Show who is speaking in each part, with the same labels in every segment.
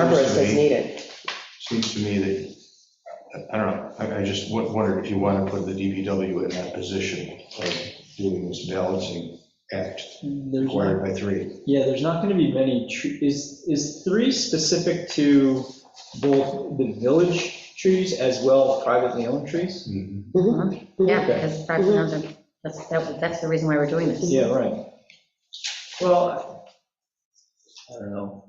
Speaker 1: numbers as
Speaker 2: me-
Speaker 1: needed.
Speaker 2: Seems to me that, I don't know, I I just wo- wondered if you want to put the DPW in that position of doing this balancing act
Speaker 3: There's
Speaker 2: required
Speaker 3: not,
Speaker 2: by three.
Speaker 3: yeah, there's not going to be many, tre- is, is three specific to both the village trees as well as privately owned trees?
Speaker 1: Mm-hmm.
Speaker 4: Yeah, because private towns are, that's, that- that's the reason why we're doing this.
Speaker 3: Yeah, right. Well, I don't know.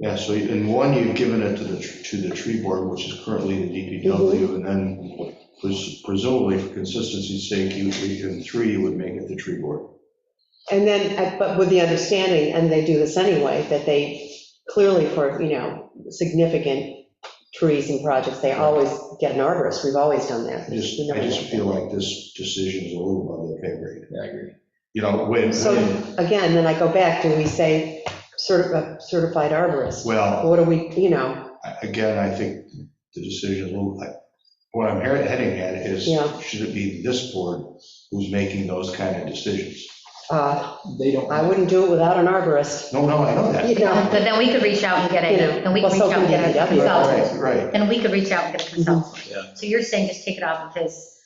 Speaker 2: Yeah, so in one, you've given it to the, tr- to the tree board, which is currently the DPW, and then pres- presumably for consistency's sake, you, you- in three, you would make it the tree board.
Speaker 1: And then, uh, but with the understanding, and they do this anyway, that they clearly for, you know, significant trees and projects, they always get an arborist. We've always done that.
Speaker 2: I just, I just feel like this decision is a little above the pay grade.
Speaker 3: Yeah, I agree.
Speaker 2: You know, when,
Speaker 1: So
Speaker 2: when-
Speaker 1: again, then I go back, do we say certi- uh, certified arborist?
Speaker 2: well.
Speaker 1: What do we, you know,
Speaker 2: I- Again, I think the decision, is a little- I- what I'm hear- heading at is,
Speaker 1: Yeah.
Speaker 2: should it be this board who's making those kind of decisions?
Speaker 1: uh,
Speaker 3: They don't.
Speaker 1: I wouldn't do it without an arborist,
Speaker 2: No, no, I know that.
Speaker 1: you know.
Speaker 4: But then we could reach out and get
Speaker 1: You
Speaker 4: a,
Speaker 1: know,
Speaker 4: and we could
Speaker 1: well,
Speaker 4: reach
Speaker 1: so
Speaker 4: out and
Speaker 1: can
Speaker 4: get
Speaker 1: DPW.
Speaker 4: a consultant.
Speaker 2: Right, right.
Speaker 4: And we could reach out and get a
Speaker 1: Mm-hmm.
Speaker 4: consultant.
Speaker 3: Yeah.
Speaker 4: So you're saying just take it off of his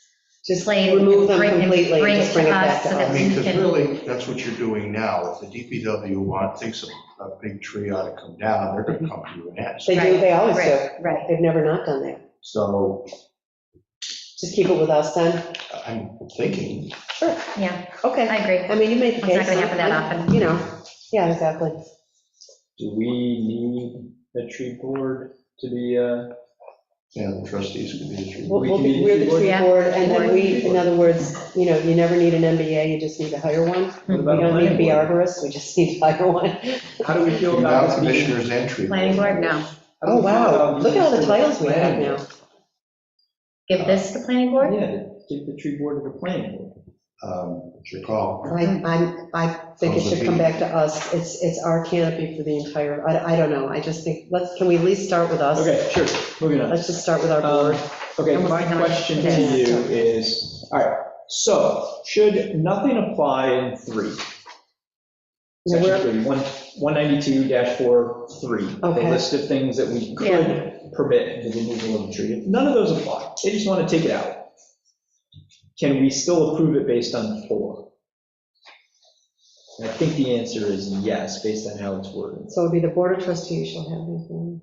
Speaker 1: Just
Speaker 4: plate. and
Speaker 1: remove them
Speaker 4: bring- and
Speaker 1: completely,
Speaker 4: bring
Speaker 1: and
Speaker 4: it
Speaker 1: just bring it back
Speaker 4: so
Speaker 1: to
Speaker 4: that
Speaker 2: I
Speaker 1: us.
Speaker 2: mean,
Speaker 4: we
Speaker 2: because
Speaker 4: can-
Speaker 2: really, that's what you're doing now. If the DPW want, thinks a, a big tree ought to come down, they're gonna come to you and ask.
Speaker 1: They do, they always do.
Speaker 4: Right, right.
Speaker 1: They've never not done that.
Speaker 2: So
Speaker 1: Just keep it with us then.
Speaker 2: I'm thinking,
Speaker 4: Yeah,
Speaker 1: Okay.
Speaker 4: I agree.
Speaker 1: I mean, you make the
Speaker 4: It's
Speaker 1: case.
Speaker 4: not gonna happen that often.
Speaker 1: You know, yeah, exactly.
Speaker 3: Do we need a tree board to be, uh,
Speaker 2: yeah, the trustees could be a tree.
Speaker 1: We'll,
Speaker 3: We
Speaker 1: we'll
Speaker 3: can
Speaker 1: be,
Speaker 3: be
Speaker 1: we're the
Speaker 3: keyboard.
Speaker 1: tree
Speaker 4: Yeah.
Speaker 1: board, and
Speaker 4: Keyboard.
Speaker 1: then we, in other words, you know, you never need an MBA, you just need to hire one.
Speaker 3: what
Speaker 1: We
Speaker 3: about a
Speaker 1: don't need to
Speaker 3: planning
Speaker 1: be
Speaker 3: board?
Speaker 1: arborists, we just need to hire one.
Speaker 3: How do we feel
Speaker 2: Now
Speaker 3: about? being-
Speaker 2: commissioners and tree.
Speaker 4: Planning board, no.
Speaker 3: how do we
Speaker 1: Oh,
Speaker 3: feel
Speaker 1: wow,
Speaker 3: about
Speaker 1: look at all the
Speaker 3: being-
Speaker 1: titles we have now.
Speaker 4: Give this to planning board?
Speaker 3: Yeah, give the tree board to the planning board.
Speaker 2: Um, it's your call.
Speaker 1: I, I'm- I think it should come back to us, it's, it's our canopy for the entire, I, I don't know, I just think, let's, can we at least start with us?
Speaker 3: Okay, sure, moving on.
Speaker 1: Let's just start with our
Speaker 3: Um,
Speaker 1: board.
Speaker 3: Okay,
Speaker 4: Almost
Speaker 3: my
Speaker 4: like how much-
Speaker 3: question to
Speaker 1: Yeah.
Speaker 3: you is, all right, so should nothing apply in three?
Speaker 1: Now,
Speaker 3: Section
Speaker 1: we're-
Speaker 3: three, one- 192-43, the
Speaker 1: Okay.
Speaker 3: list of things that we could permit the removal of a tree. If None of those apply. They just want to take it out. Can we still approve it based on four? And I think the answer is yes, based on how it's worded.
Speaker 1: So it'd be the board of trustees shall have these.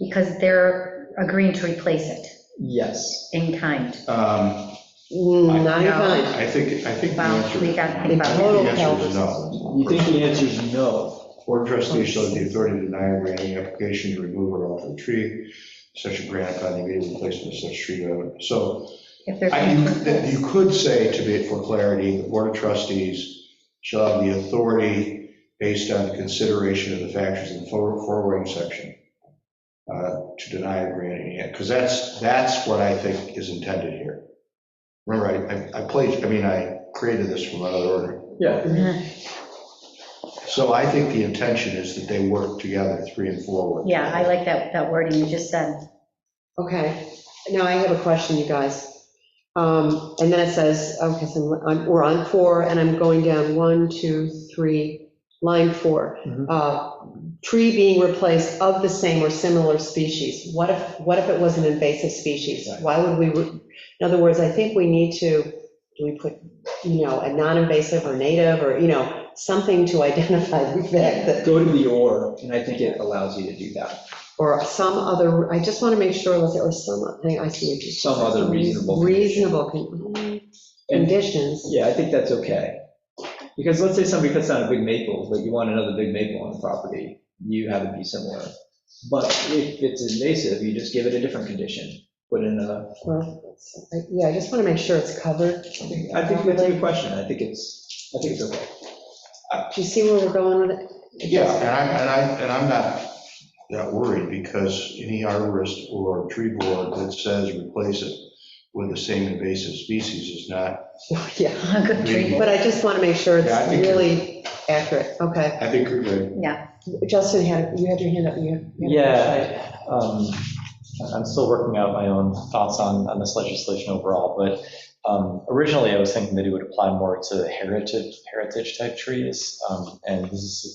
Speaker 4: Because they're agreeing to replace it
Speaker 3: Yes.
Speaker 4: in kind.
Speaker 2: Um,
Speaker 1: Mm, Not in
Speaker 4: No.
Speaker 1: kind.
Speaker 2: I think, I think the
Speaker 4: Wow,
Speaker 2: answer.
Speaker 4: we got to
Speaker 2: I think
Speaker 4: think about
Speaker 2: the
Speaker 4: that.
Speaker 1: Total
Speaker 2: answer is
Speaker 1: calendar.
Speaker 2: no.
Speaker 3: You think the answer is no?
Speaker 2: Board of trustees shall have the authority to deny or grant any application to remove or alter a tree, such a grant upon the immediate replacement of such tree. uh, So
Speaker 4: If they're.
Speaker 2: I- you that you could say, to be for clarity, the board of trustees shall have the authority based on the consideration of the factors in the for- foregoing section uh, to deny or grant any, because that's, that's what I think is intended here. Remember, I- I I played, I mean, I created this from another order.
Speaker 3: Yeah.
Speaker 2: So I think the intention is that they work together, three and four work.
Speaker 4: Yeah, I
Speaker 2: together.
Speaker 4: like that, that wording you just said.
Speaker 1: Okay, now I have a question, you guys. Um, And then it says, okay, so I'm- we're on four, and I'm going down one, two, three, line four.
Speaker 3: Mhm.
Speaker 1: Uh, Tree being replaced of the same or similar species. What if, what if it was an invasive species?
Speaker 3: Right.
Speaker 1: Why would we, re- in other words, I think we need to, do we put, you know, a non-invasive or native, or, you know, something to identify the fact that
Speaker 3: Go to the or, and I think it allows you to do that.
Speaker 1: or some other, I just want to make sure, let's say, or some, I I see what you.
Speaker 3: Some other reasonable condition.
Speaker 1: Reasonable con-
Speaker 3: And
Speaker 1: conditions.
Speaker 3: Yeah, I think that's okay. Because let's say somebody cuts down a big maple, but you want another big maple on the property, you have it be similar. But if it's invasive, you just give it a different condition, put in a,
Speaker 1: Well, I- Yeah, I just want to make sure it's covered.
Speaker 3: I think that's a good question, I think it's, I think it's okay.
Speaker 1: Do you see where we're going with it?
Speaker 2: Yeah, and I'm, and I, and I'm not that worried, because any arborist or tree board that says replace it with the same invasive species is not,
Speaker 1: Yeah,
Speaker 4: Good treatment.
Speaker 1: but I just want to make sure
Speaker 2: Yeah, I
Speaker 1: it's
Speaker 2: think you're-
Speaker 1: really accurate. Okay.
Speaker 2: I think you're good.
Speaker 4: Yeah,
Speaker 1: Justin, had you had your hand up, you had. you had a
Speaker 3: Yeah, um, I'm still working out my own thoughts on, on this legislation overall, but um, originally I was thinking that it would apply more to heritage, heritage type trees. um, And this is